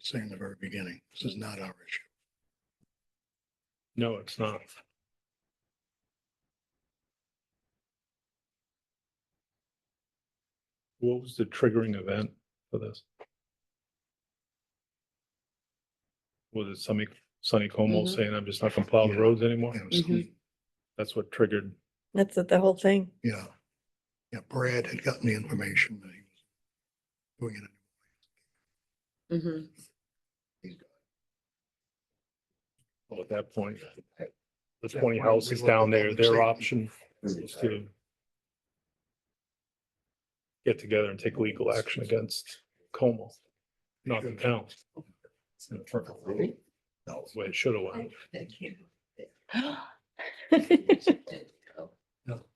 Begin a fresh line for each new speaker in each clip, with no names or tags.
say in the very beginning, this is not our issue.
No, it's not. What was the triggering event for this? Was it Sonny, Sonny Como
Mhm.
saying, I'm just not gonna plow the roads anymore?
You know, so-
That's what triggered,
That's the whole thing.
Yeah. Yeah, Brad had gotten the information that he was doing it.
Mm-hmm.
well, at that point, the
That
twenty
point, we
houses
looked at
down there,
public
their
safety.
option was to get together and take legal action against Como, not the town.
No,
That's the way it should have went.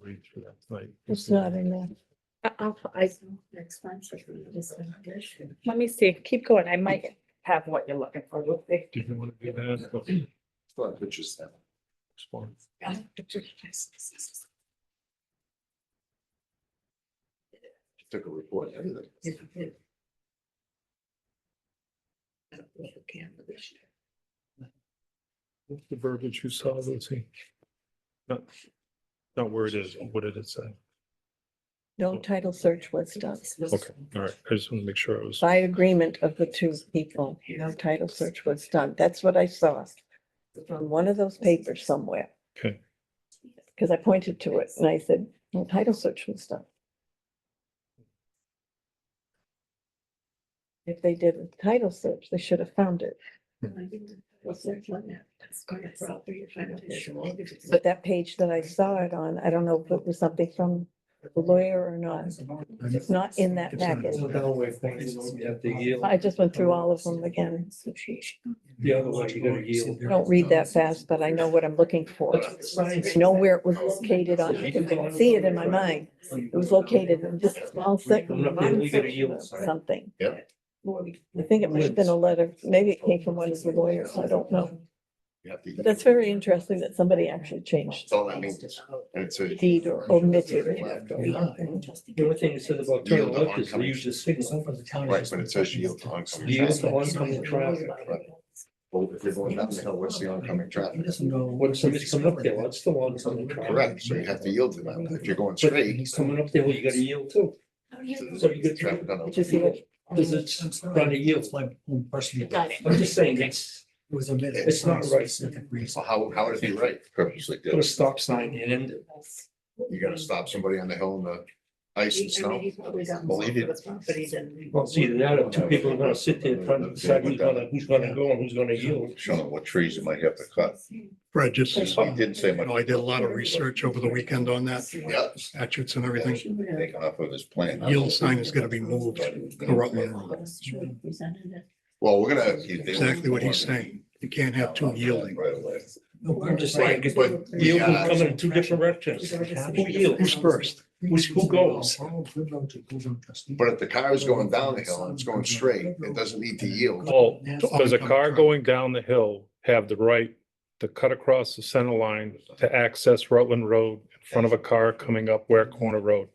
Read through that tonight.
It's not in there. Uh,
I- I'll- I, let me see, keep going, I might have what you're looking for, we'll see.
Do you want to do that?
Which is that.
Response.
Took a report, everything.
What's The verbiage you saw, Lucy? Not, not where it is, what did it say?
No title search was done.
Okay, all right, I just want to make sure I was,
By agreement of the two people, no title search was done. That's what I saw. From one of those papers somewhere,
okay,
because I pointed to it and I said, no title search was done. If they did a title search, they should have found it.
Hmm.
But that page that I saw it on, I don't know if it was something from the lawyer or not. It's not in that
It's not.
packet.
At the yield.
I just went through all of them again.
The other way, you gotta yield.
Don't read that fast, but I know what I'm looking for. I know where it was located on, I can see it in my mind. It was located in just a small section.
I'm not legally to yield, sorry.
Something. I think it might have been a letter. Maybe it came from one of the lawyers. I don't know.
You have to-
But that's very interesting that somebody actually changed
That's all that means. And it's a.
deed or omitted.
The only thing it says about turning left is they use the signal.
Right, but it says yield to oncoming
Yield
traffic.
to oncoming traffic.
Well, if you're going down the hill, what's the oncoming traffic?
When somebody's coming up there, what's the oncoming traffic?
Correct, so you have to yield to them. If you're going
But if
straight.
he's coming up there, well, you gotta yield too. So you get-
traffic on the-
Did you see what-
Cause it's trying to yield.
It's my own personal.
Got it.
I'm just saying, it's,
It was a minute.
It's not right.
Specific reason.
So how, how is he right? Purposely
put
did.
a
it.
stop sign in and
You gotta stop somebody on the hill in the ice and snow. Well, he did.
Well, it's either that or two people are gonna sit there trying to decide who's gonna, who's gonna go and who's gonna yield.
Showing them what trees you might have to cut.
Brad just,
He didn't say
you
much.
know, I did a lot of research over the weekend on that.
Yeah.
Statutes and everything.
Taken off of his plan.
Yield sign is gonna be moved to Rutland Road.
Well, we're gonna. they- they-
Exactly what he's saying. You can't have two yielding.
Right away.
No, I'm just saying.
Right,
Right, but. we
Yield will
gotta-
come in two different directions. Who
Who's
yields?
first?
Who's, who goes?
But if the car is going down the hill and it's going straight, it doesn't need to yield.
oh,
Oh,
does a
come
car
on.
going down the hill have the right to cut across the center line to access Rutland Road in front of a car coming up Ware Corner Road?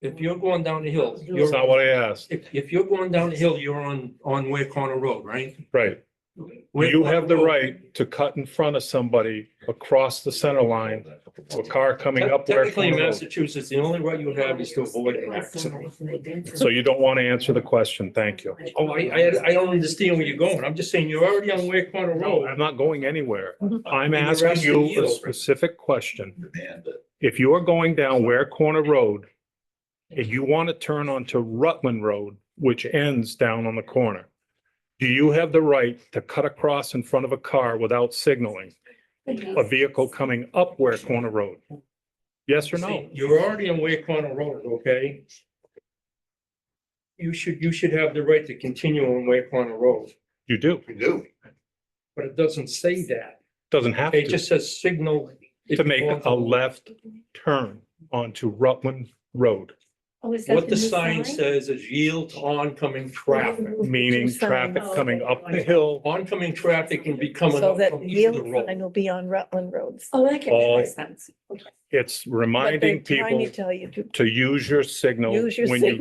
If you're going down the hill,
That's
you're,
not what I asked,
if, if you're going down the hill, you're on, on Ware Corner Road, right?
right?
Ware
You
Corner
have the
Road.
right to cut in front of somebody across the center line to a car coming up Ware
Technically, in
Corner Road.
Massachusetts, the only right you have is to avoid an accident.
So you don't want to answer the question, thank you.
Oh, I, I, I don't understand where you're going. I'm just saying, you're already on Ware Corner
No,
Road.
I'm not going anywhere. I'm
You're
asking
asking
you a
you.
specific question. If you are going down Ware Corner Road and you want to turn onto Rutland Road, which ends down on the corner, do you have the right to cut across in front of a car without signaling a vehicle coming up Ware Corner Road? Yes or no?
You're already on Ware Corner Road, okay? You should, you should have the right to continue on Ware Corner Road,
You do.
We do.
but it doesn't say that.
Doesn't have
It
to,
just says signal. if
to
you
make
want
a left turn onto Rutland Road,
What Oh, the sign says is yield to oncoming traffic.
meaning
Sign.
traffic coming up the hill
Oncoming traffic can be coming
So
up
that
from either
yield
road.
sign will be on Rutland roads.
Oh, that can
All-
make sense.
It's
But they're
reminding
trying to
people
Tell you to
to use your signal
Use your
when you
signal.